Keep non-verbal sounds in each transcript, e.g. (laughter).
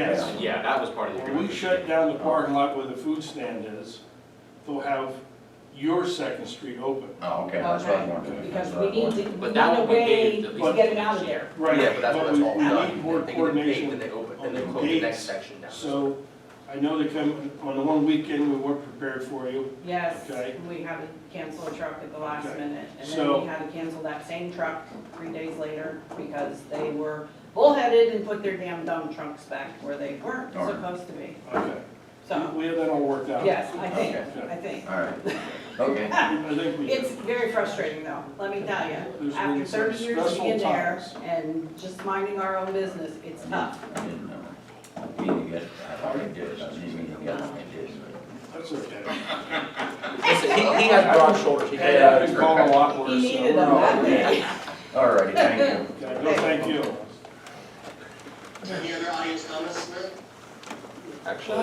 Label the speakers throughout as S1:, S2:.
S1: Yes.
S2: Yeah, that was part of the
S1: When
S2: agreement.
S1: we shut down the parking lot where the food stand is, they'll have your second street open.
S3: Oh, okay, that's what I wanted.
S4: Okay, because we need to, we
S2: But
S4: need
S2: that
S4: a
S2: one we
S4: way
S2: gave at
S4: to
S2: least-
S4: get it out of there.
S1: Right.
S5: Yeah, but that's what
S1: we-
S5: it's all
S1: We
S5: done.
S1: need more
S5: They give them a date, Then they
S1: coordination.
S5: open,
S1: on
S5: then they
S1: the
S5: close the next
S1: gates.
S5: section down.
S1: So I know they come, on the one weekend, we weren't prepared for you.
S4: Yes,
S1: Okay.
S4: we had to cancel a truck at the last
S1: Okay.
S4: minute, and then
S1: So-
S4: we had to cancel that same truck three days later because they were bullheaded and put their damn dumb trunks back where they weren't
S3: Darn.
S4: supposed to be.
S1: Okay.
S4: So,
S1: We have that all worked out.
S4: yes, I think,
S1: Okay.
S4: I think.
S3: All right, okay.
S1: I think we
S4: (laughs) It's
S1: do.
S4: very frustrating though, let me tell you.
S1: There's
S4: After
S1: been some
S4: thirty years of being
S1: stressful
S4: there
S1: times.
S4: and just minding our own business, it's tough.
S3: I didn't know. We need to get, I already did, I didn't mean to get, I did.
S1: That's okay.
S2: Listen, he, he has broad shoulders, he
S1: Hey,
S2: can,
S5: uh,
S1: I've been called a lot
S4: He
S1: worse. so
S4: needed
S1: we're
S4: them
S1: all
S4: that
S1: good.
S4: day.
S3: All righty, thank you.
S1: Okay, No, thank you.
S6: Any other audience comments tonight?
S2: actually,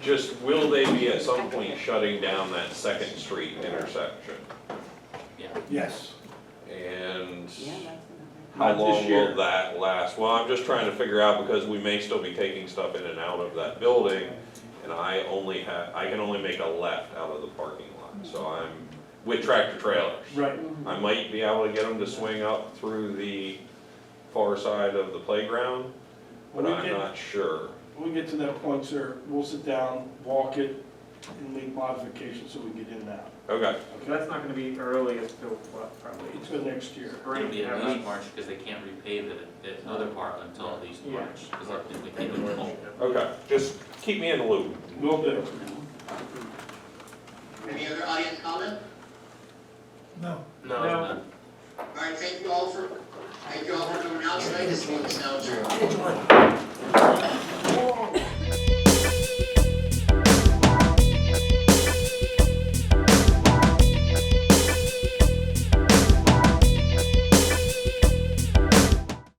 S7: Just will they be at some point shutting down that Second Street intersection?
S1: Yes.
S7: And
S4: Yeah, that's another.
S7: how
S1: Not this
S7: long
S1: year.
S7: will that last? Well, I'm just trying to figure out because we may still be taking stuff in and out of that building. And I only have, I can only make a left out of the parking lot, so I'm, with tractor trailers.
S1: Right.
S7: I might be able to get them to swing up through the far side of the playground,
S1: When we
S7: but I'm
S1: get,
S7: not sure.
S1: when we get to that point, sir, we'll sit down, walk it, and make modifications so we can get in and out.
S7: Okay,
S8: So that's not gonna be early until what, probably?
S1: Until next year.
S2: it'll
S8: spring,
S2: be at
S8: have
S2: least
S8: a-
S2: March, because they can't repave it, that other part until at least March, because I think they can do it.
S7: okay, just keep me in the loop.
S1: Will do.
S6: Any other audience comment?
S2: No,
S8: No.
S2: it's not.
S6: All right, thank you all for, thank you all for coming out tonight, this meeting is now adjourned.